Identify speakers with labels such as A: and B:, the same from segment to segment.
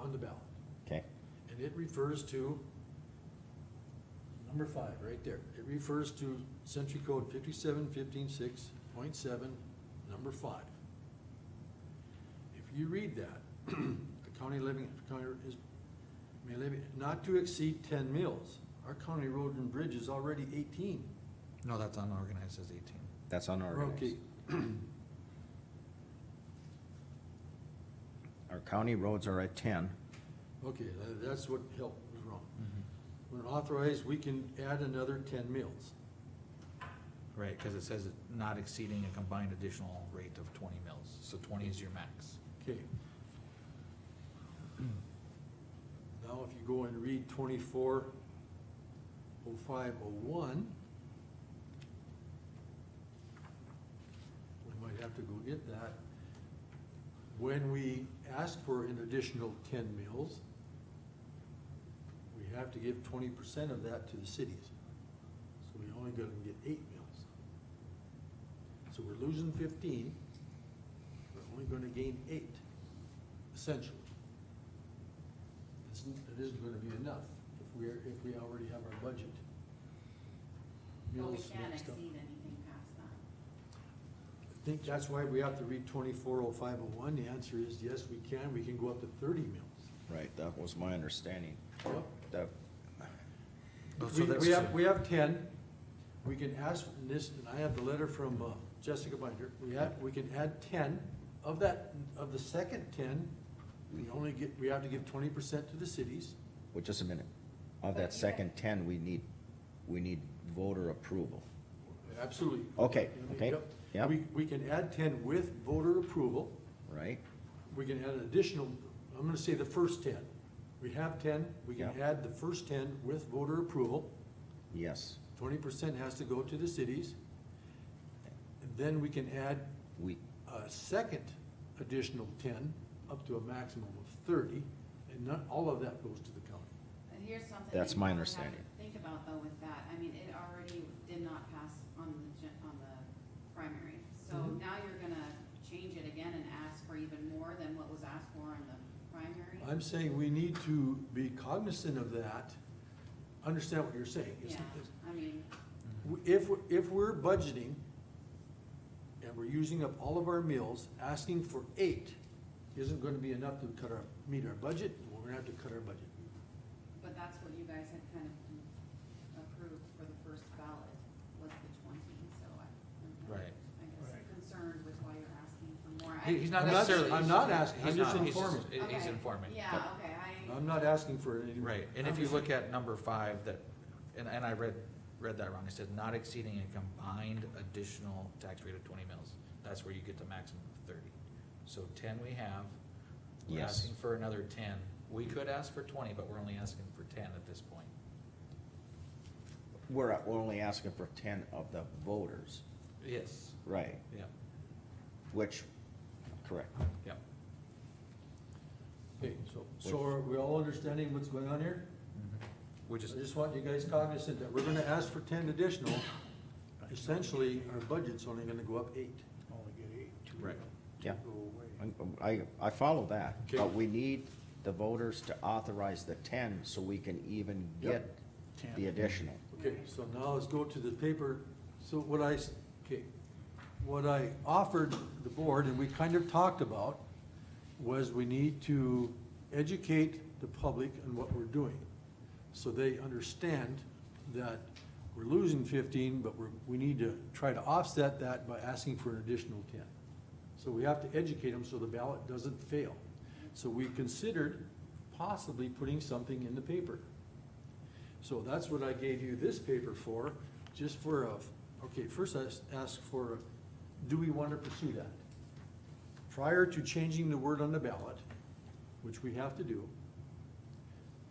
A: on the ballot.
B: Okay,
A: And it refers to number five, right there. It refers to Century Code fifty-seven fifteen six point seven, number five. If you read that, a county living, county is, may levy, not to exceed ten mills. Our county road and bridge is already eighteen.
C: No, that's unorganized as eighteen.
B: that's unorganized.
A: Okay,
B: Our county roads are at ten,
A: okay, tha- that's what helped, was wrong. When authorized, we can add another ten mills.
C: Right, cause it says it not exceeding a combined additional rate of twenty mils, so twenty is your max.
A: Okay. Now, if you go and read twenty-four oh five oh one, we might have to go get that. When we ask for an additional ten mills, we have to give twenty percent of that to the cities. So we only gonna get eight mills. So we're losing fifteen, we're only gonna gain eight, essentially. It's, it isn't gonna be enough if we're, if we already have our budget.
D: But we
A: Mills
D: can't
A: next up.
D: exceed anything past that.
A: I think that's why we have to read twenty-four oh five oh one, the answer is yes, we can, we can go up to thirty mills.
B: right, that was my understanding,
A: Yep.
B: that,
C: Oh, so
A: We,
C: that's
A: we have,
C: true.
A: we have ten, we can ask, and this, and I have the letter from uh, Jessica Binder, we have, we can add ten. Of that, of the second ten, we only get, we have to give twenty percent to the cities.
B: well, just a minute. Of
D: But you
B: that
D: have-
B: second ten, we need, we need voter approval.
A: Absolutely.
B: Okay, okay,
A: Yep.
B: yep.
A: We, we can add ten with voter approval.
B: right?
A: We can add an additional, I'm gonna say the first ten. We have ten, we can
B: Yeah.
A: add the first ten with voter approval.
B: Yes,
A: Twenty percent has to go to the cities. And then we can add
B: we,
A: a second additional ten, up to a maximum of thirty, and not, all of that goes to the county.
D: And here's something.
B: That's
D: that you
B: my
D: probably have to
B: understanding.
D: Think about though with that, I mean, it already did not pass on the, gen- on the primary. So
C: Mm-hmm.
A: Mhm.
D: now you're gonna change it again and ask for even more than what was asked for in the primary?
A: I'm saying we need to be cognizant of that, understand what you're saying. It's-
D: Yeah, I mean,
A: If, if we're budgeting and we're using up all of our meals, asking for eight isn't gonna be enough to cut our, meet our budget, and we're gonna have to cut our budget.
D: but that's what you guys had kind of approved for the first ballot was the twenty, so I. I'm kind
C: Right.
D: of, I guess concerned with why you're asking for more. I-
C: He- He's not
A: I'm not-
C: necessarily.
A: I'm not asking, I'm
C: he's
A: just
C: not, he's
A: informing.
C: he- He's
D: Okay,
C: informing.
D: Yeah, okay, I.
A: I'm not asking for any.
C: Right, and if you look at number five, that, and, and I read, read that wrong, it said not exceeding a combined additional tax rate of twenty mils. That's where you get the maximum of thirty. So ten we have, we're
B: Yes.
C: asking for another ten. We could ask for twenty, but we're only asking for ten at this point.
B: we're, at- we're only asking for ten of the voters,
C: Yes,
B: right,
C: yeah,
B: which, correct,
C: yeah.
A: Okay, so, so are we all understanding what's going on here?
C: We just,
A: I just want you guys cognizant that we're gonna ask for ten additional. Essentially, our budget's only gonna go up eight.
E: Only get eight, two
C: Right.
B: yeah.
E: go away.
B: I, I follow that, but
A: Okay.
B: we need the voters to authorize the ten so we can even get
A: Yep.
B: the
E: 10.
B: additional.
A: Okay, so now let's go to the paper, so what I, s- okay, what I offered the board, and we kind of talked about, was we need to educate the public on what we're doing, so they understand that we're losing fifteen, but we're, we need to try to offset that by asking for an additional ten. So we have to educate them so the ballot doesn't fail. So we considered possibly putting something in the paper. So that's what I gave you this paper for, just for a, okay, first I s- asked for, do we want to pursue that? Prior to changing the word on the ballot, which we have to do,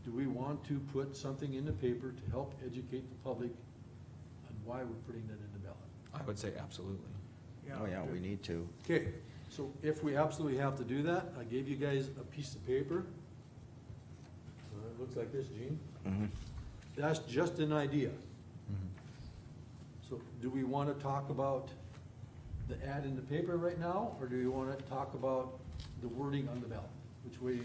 A: do we want to put something in the paper to help educate the public on why we're putting that in the ballot?
C: I would say absolutely.
B: Oh, yeah, we need to,
A: Okay, so if we absolutely have to do that, I gave you guys a piece of paper. Uh, It looks like this, Gene.
B: Mhm.
A: That's just an idea. So do we wanna talk about the ad in the paper right now, or do we wanna talk about the wording on the ballot? Which way